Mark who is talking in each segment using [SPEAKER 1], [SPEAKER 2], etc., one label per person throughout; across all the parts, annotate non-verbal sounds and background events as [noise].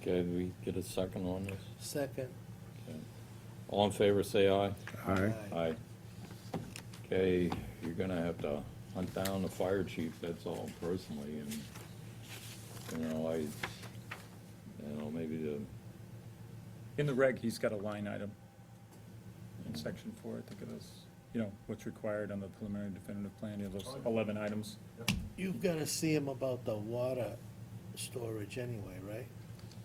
[SPEAKER 1] Okay, we get a second on this?
[SPEAKER 2] Second.
[SPEAKER 1] Okay. All in favor, say aye.
[SPEAKER 3] Aye.
[SPEAKER 1] Aye. Okay, you're gonna have to hunt down the fire chief, that's all personally, and, you know, I, you know, maybe the,
[SPEAKER 4] In the reg, he's got a line item in section four, I think it is, you know, what's required on the preliminary definitive plan, you have those eleven items.
[SPEAKER 2] You've got to see him about the water storage anyway, right?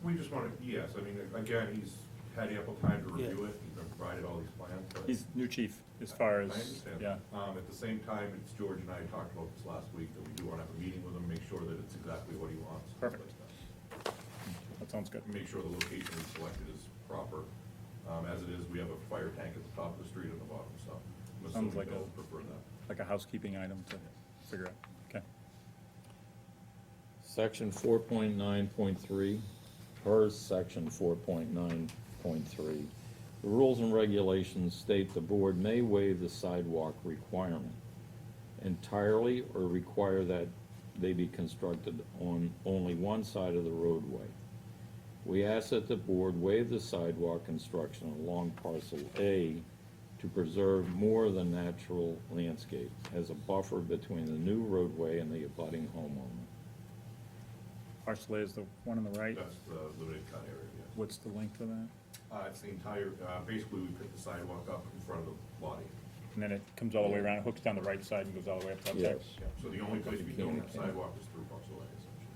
[SPEAKER 5] We just wanted, yes, I mean, again, he's had ample time to
[SPEAKER 2] Yeah.
[SPEAKER 5] review it, he's provided all these plans, but.
[SPEAKER 4] He's new chief, as far
[SPEAKER 5] I
[SPEAKER 4] as,
[SPEAKER 5] understand.
[SPEAKER 4] yeah.
[SPEAKER 5] Um, at the same time, it's George and I talked about this last week, that we do wanna have a meeting with him, make sure that it's exactly what he wants. things
[SPEAKER 4] Perfect.
[SPEAKER 5] like that.
[SPEAKER 4] That sounds good.
[SPEAKER 5] Make sure the location we selected is proper. Um, as it is, we have a fire tank at the top of the street and the bottom, so
[SPEAKER 4] Sounds
[SPEAKER 5] I'm assuming
[SPEAKER 4] like
[SPEAKER 5] they'll
[SPEAKER 4] a-
[SPEAKER 5] prefer that.
[SPEAKER 4] Like a housekeeping item to figure out. Okay.
[SPEAKER 1] section four point nine point three, per section four point nine point three. The rules and regulations state the board may waive the sidewalk requirement entirely or require that they be constructed on only one side of the roadway. We ask that the board waive the sidewalk construction along parcel A to preserve more of the natural landscape as a buffer between the new roadway and the abutting homeowner.
[SPEAKER 4] Parcel A is the one on the right.
[SPEAKER 5] That's the limited cut area, yes.
[SPEAKER 4] What's the length of that?
[SPEAKER 5] Uh, it's the entire, uh, basically, we picked the sidewalk up in front of the lottie.
[SPEAKER 4] And then it comes all the way around, hooks down the right side and goes all the way up to up there.
[SPEAKER 5] Yeah, so the only place we don't have sidewalk is through Bucks Lane, essentially.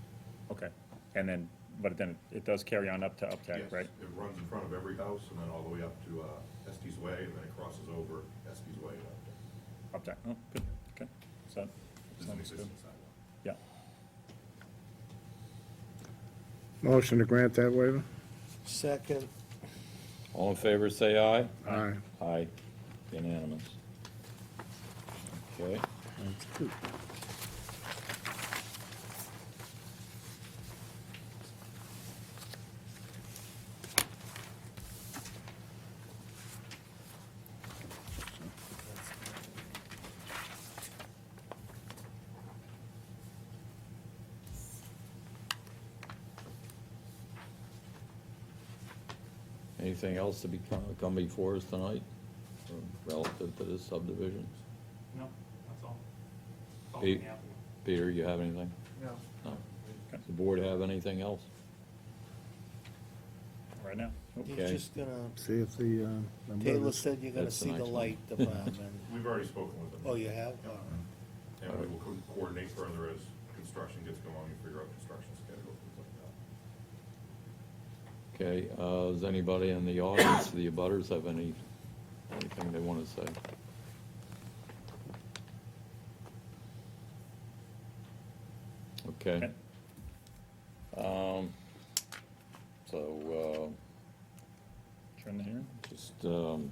[SPEAKER 4] Okay. And then, but then it does carry on up to Uptack,
[SPEAKER 5] Yes,
[SPEAKER 4] right?
[SPEAKER 5] It runs in front of every house and then all the way up to uh, Estes Way and then it crosses over Estes Way. and up to-
[SPEAKER 4] Uptack. Oh, good. Okay. So,
[SPEAKER 5] This is an
[SPEAKER 4] sounds good.
[SPEAKER 5] existing sidewalk.
[SPEAKER 4] Yeah.
[SPEAKER 3] Motion to grant that waiver?
[SPEAKER 2] Second,
[SPEAKER 1] All in favor, say aye.
[SPEAKER 3] Aye.
[SPEAKER 1] Aye. Unanimous. Okay. Anything else to be, come before us tonight um, relative to this subdivision?
[SPEAKER 6] No, that's all. It's all
[SPEAKER 1] Pete?
[SPEAKER 6] from the applicant.
[SPEAKER 1] Peter, you have anything?
[SPEAKER 6] No.
[SPEAKER 1] No. Does the board have anything else?
[SPEAKER 4] Right now. Nope.
[SPEAKER 2] you're
[SPEAKER 1] Okay.
[SPEAKER 2] just gonna,
[SPEAKER 3] See if the, uh, number
[SPEAKER 2] Taylor
[SPEAKER 3] is-
[SPEAKER 2] said you're gonna
[SPEAKER 1] That's the
[SPEAKER 2] see the
[SPEAKER 1] next one.
[SPEAKER 2] light department.
[SPEAKER 1] [laughs]
[SPEAKER 5] We've already spoken with them.
[SPEAKER 2] Oh, you have?
[SPEAKER 5] Yeah.
[SPEAKER 2] All right.
[SPEAKER 5] And we will co- coordinate further as construction gets going and figure out construction schedule, things like that.
[SPEAKER 1] Okay, uh, does anybody in the audience, the abutters, have any, anything they want to say? Okay.
[SPEAKER 4] Okay.
[SPEAKER 1] Um, so, uh,
[SPEAKER 4] Turn the hearing.
[SPEAKER 1] Just, um,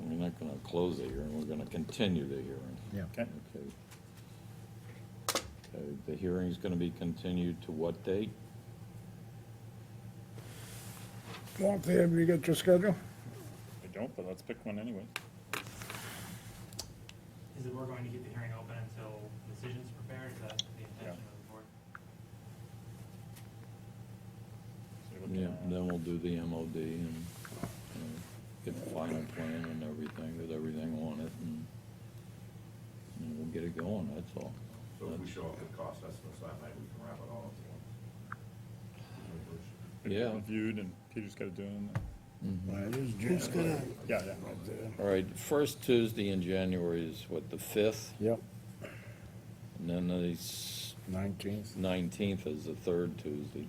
[SPEAKER 1] we're not gonna close the hearing, we're gonna continue the hearing.
[SPEAKER 3] Yeah.
[SPEAKER 4] Okay.
[SPEAKER 1] Okay. Okay, the hearing's gonna be continued to what date?
[SPEAKER 3] Walt, have you got your schedule?
[SPEAKER 4] I don't, but let's pick one anyway.
[SPEAKER 6] Is it, we're going to keep the hearing open until decisions prepared, is that the intention of the board?
[SPEAKER 4] So you're looking
[SPEAKER 1] Yeah,
[SPEAKER 4] at-
[SPEAKER 1] then we'll do the MOD and, and get the final plan and everything, with everything on it, and, and we'll get it going, that's all.
[SPEAKER 5] So if we show up with cost estimates that night, we can wrap it all up. at once.
[SPEAKER 4] It's
[SPEAKER 1] Yeah.
[SPEAKER 4] Reviewed and Peter's gotta do them.
[SPEAKER 2] Who's gonna,
[SPEAKER 4] Yeah, yeah.
[SPEAKER 1] Mm-hmm. All right, first Tuesday in January is what, the fifth?
[SPEAKER 3] Yep,
[SPEAKER 1] And then the s-
[SPEAKER 3] nineteenth.
[SPEAKER 1] Nineteenth is the third Tuesday.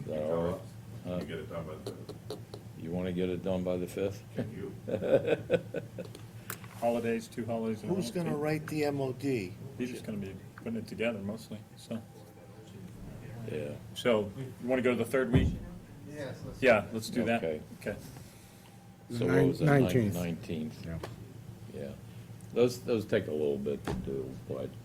[SPEAKER 1] Is
[SPEAKER 5] You
[SPEAKER 1] that
[SPEAKER 5] tell
[SPEAKER 1] all
[SPEAKER 5] us.
[SPEAKER 1] right?
[SPEAKER 5] You get it done by the,
[SPEAKER 1] You want to get it done by the fifth? [laughs]
[SPEAKER 5] can you?
[SPEAKER 4] Holidays, two holidays. in a
[SPEAKER 2] who's
[SPEAKER 4] row.
[SPEAKER 2] gonna write the MOD?
[SPEAKER 4] Peter's gonna be putting it together mostly, so.
[SPEAKER 1] Yeah,
[SPEAKER 4] So, you wanna go to the third week?
[SPEAKER 7] Yes, let's.
[SPEAKER 4] Yeah, let's do that.
[SPEAKER 1] Okay.
[SPEAKER 4] Okay.
[SPEAKER 1] so what was that,
[SPEAKER 3] Nineteenth.
[SPEAKER 1] nineteenth?
[SPEAKER 3] Yeah.
[SPEAKER 1] Yeah, those, those take a little bit to do, but